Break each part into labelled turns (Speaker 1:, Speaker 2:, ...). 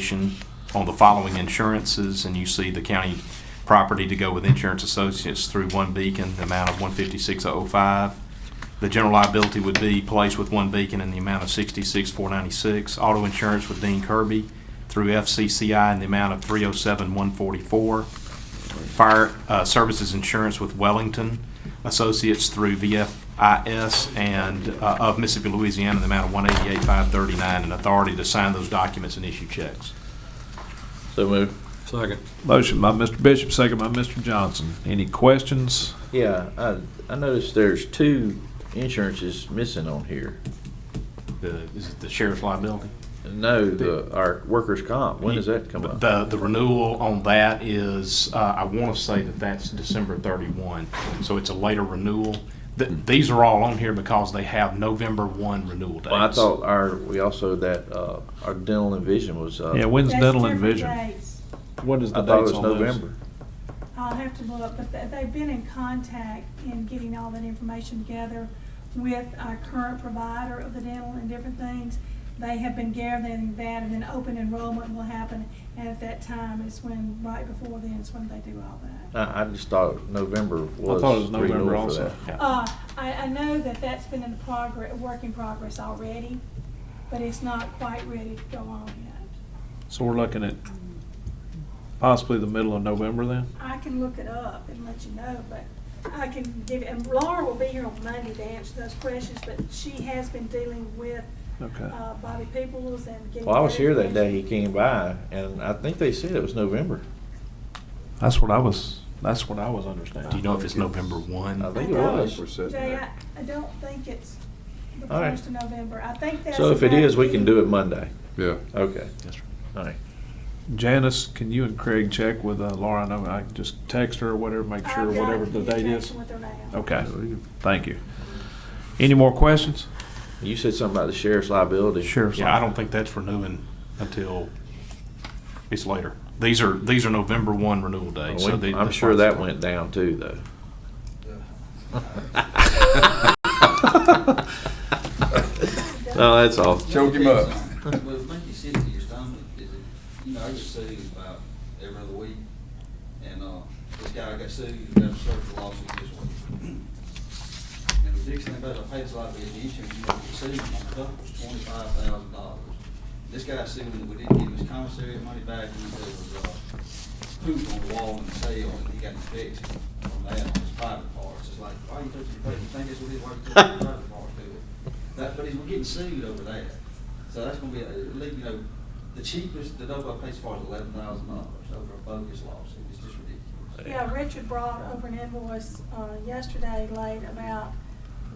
Speaker 1: presentation on the following insurances, and you see the county property to go with insurance associates through One Beacon, the amount of one fifty-six oh five. The general liability would be placed with One Beacon in the amount of sixty-six four ninety-six. Auto insurance with Dean Kirby through FCCI in the amount of three oh seven one forty-four. Fire uh, Services Insurance with Wellington Associates through VFIS and uh, of Mississippi, Louisiana, in the amount of one eighty-eight, five thirty-nine, and authority to sign those documents and issue checks.
Speaker 2: So moved.
Speaker 3: Second.
Speaker 4: Motion by Mr. Bishop, second by Mr. Johnson. Any questions?
Speaker 2: Yeah, I, I noticed there's two insurances missing on here.
Speaker 1: The, is it the sheriff's liability?
Speaker 2: No, the, our workers' comp, when does that come up?
Speaker 1: The, the renewal on that is, uh, I want to say that that's December thirty-one, so it's a later renewal. Th- These are all on here because they have November one renewal dates.
Speaker 2: Well, I thought our, we also, that, uh, our dental and vision was, uh,
Speaker 4: Yeah, when's
Speaker 5: That's
Speaker 4: dental and
Speaker 5: different
Speaker 4: vision?
Speaker 5: dates.
Speaker 4: What is
Speaker 2: I thought it was November.
Speaker 5: I'll have to look, but they- they've been in contact in getting all that information together with our current provider of the dental and different things. They have been gathering that, and then open enrollment will happen, and at that time is when, right before then is when they do all
Speaker 4: Uh,
Speaker 5: that.
Speaker 2: I, I just thought November
Speaker 4: I thought it was
Speaker 2: was
Speaker 4: November
Speaker 2: renewal for
Speaker 4: also.
Speaker 2: that.
Speaker 5: Uh, I, I know that that's been in progress, work in progress already, but it's not quite ready to go on yet.
Speaker 4: So we're looking at possibly the middle of November then?
Speaker 5: I can look it up and let you know, but I can give, and Laura will be here on Monday to answer those questions, but she has been dealing with
Speaker 4: Okay.
Speaker 5: uh, Bobby Peoples and getting.
Speaker 2: Well, I was here that day
Speaker 5: information.
Speaker 2: he came by, and I think they said it was November.
Speaker 4: That's what I was, that's what I was understanding.
Speaker 1: Do you know if it's November one?
Speaker 2: I think it
Speaker 5: I don't-
Speaker 2: was.
Speaker 5: Jay, I, I don't think it's the
Speaker 2: All right.
Speaker 5: first of November. I think that's.
Speaker 2: So if it is, we can do it Monday.
Speaker 6: Yeah,
Speaker 2: Okay,
Speaker 1: Yes, sir.
Speaker 2: all right.
Speaker 4: Janice, can you and Craig check with uh, Laura? I know I can just text her or whatever, make sure
Speaker 5: I've got
Speaker 4: whatever the date is.
Speaker 5: communication with her now.
Speaker 4: Okay, thank you. Any more questions?
Speaker 2: You said something about the sheriff's liability.
Speaker 4: Sheriff's.
Speaker 1: Yeah, I don't think that's renewing until it's later. These are, these are November one renewal dates. so they-
Speaker 2: Oh, I'm
Speaker 1: that's
Speaker 2: sure
Speaker 1: why it's-
Speaker 2: that went down too, though. No, that's all.
Speaker 6: Choke him up.
Speaker 7: Well, make you sick to your stomach, is it, you know, I get sued about every other week, and, uh, this guy got sued, he got served a lawsuit this week. And the biggest thing about it, I paid a lot of the insurance, you know, the sued, it was twenty-five thousand dollars. This guy sued, and we didn't give him his commissary money back, and there was, uh, poop on the wall in the cell, and he got fixed from that on his private parts, it's like, why you touching your private, think that's what it, why you touching your private parts, do it? That, but he's, we're getting sued over that. So that's gonna be, at least, you know, the cheapest, the Novo pays for is eleven thousand dollars over a bogus lawsuit. It's just ridiculous.
Speaker 5: Yeah, Richard brought over an invoice, uh, yesterday late about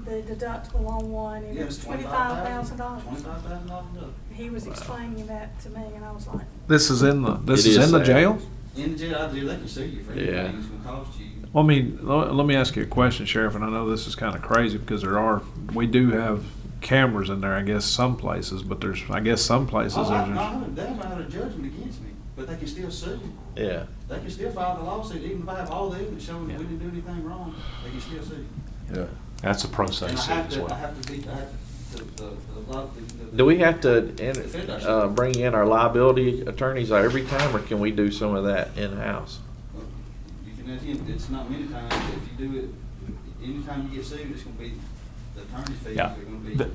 Speaker 5: the deductible on one, and
Speaker 7: Yeah,
Speaker 5: it
Speaker 7: it's
Speaker 5: was twenty-five thousand dollars.
Speaker 7: Twenty-five thousand dollars,
Speaker 5: He was explaining that to me, and I was like,
Speaker 4: This is in the, this
Speaker 2: It
Speaker 4: is
Speaker 2: is
Speaker 4: in the
Speaker 2: sad.
Speaker 4: jail?
Speaker 7: in the jail, I do, they can sue you for
Speaker 2: Yeah.
Speaker 7: anything, it's gonna cost you.
Speaker 4: Well, I mean, let, let me ask you a question, Sheriff, and I know this is kind of crazy because there are, we do have cameras in there, I guess, some places, but there's, I guess, some places
Speaker 7: Oh, I,
Speaker 4: there's.
Speaker 7: no, they might have a judgment against me, but they can still sue.
Speaker 2: Yeah.
Speaker 7: They can still file the lawsuit, even if I have all the evidence showing
Speaker 1: Yeah.
Speaker 7: that we didn't do anything wrong, they can still sue.
Speaker 6: yeah.
Speaker 1: That's a pro se
Speaker 7: And I
Speaker 1: suit
Speaker 7: have
Speaker 1: as
Speaker 7: to, I
Speaker 1: well.
Speaker 7: have to be, I have to, the, the, the, law- the- the.
Speaker 2: Do we have to, in- uh, bring in our liability attorneys every time, or can we do some of that in-house?
Speaker 7: You can, it's- it's not many times, if you do it, anytime you get sued, it's gonna be, the attorney's fees
Speaker 1: Yeah.
Speaker 7: are gonna be.
Speaker 1: Th-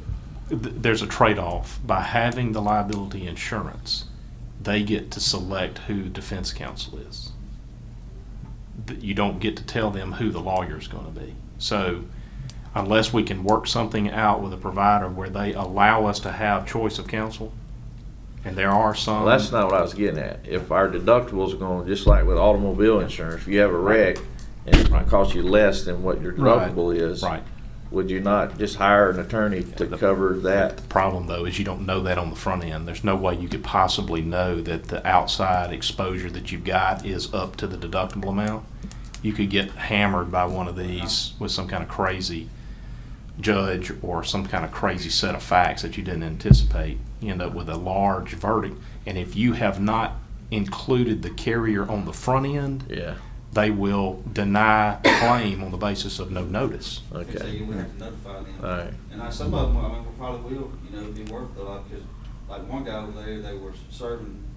Speaker 1: th- There's a trade-off. By having the liability insurance, they get to select who defense counsel is. Th- You don't get to tell them who the lawyer's gonna be. So unless we can work something out with a provider where they allow us to have choice of counsel, and there are some.
Speaker 2: Well, that's
Speaker 6: Um,
Speaker 2: not what I was getting at. If our deductibles are going, just like with automobile insurance, if you have a wreck and
Speaker 1: Right.
Speaker 2: it costs you less than what your
Speaker 4: Right.
Speaker 2: deductible is.
Speaker 1: Right.
Speaker 2: Would you not just hire an attorney to cover that?
Speaker 1: The problem, though, is you don't know that on the front end. There's no way you could possibly know that the outside exposure that you've got is up to the deductible amount. You could get hammered by one of these with some kind of crazy judge or some kind of crazy set of facts that you didn't anticipate. You end up with a large verdict. And if you have not included the carrier on the front end,
Speaker 2: Yeah,
Speaker 1: they will deny the claim on the basis of no notice.
Speaker 7: And so
Speaker 2: okay.
Speaker 7: you would have to notify them.
Speaker 2: All right.
Speaker 7: And I, some of them, I mean, we probably will, you know, be worth a lot, because like one guy over there, they were serving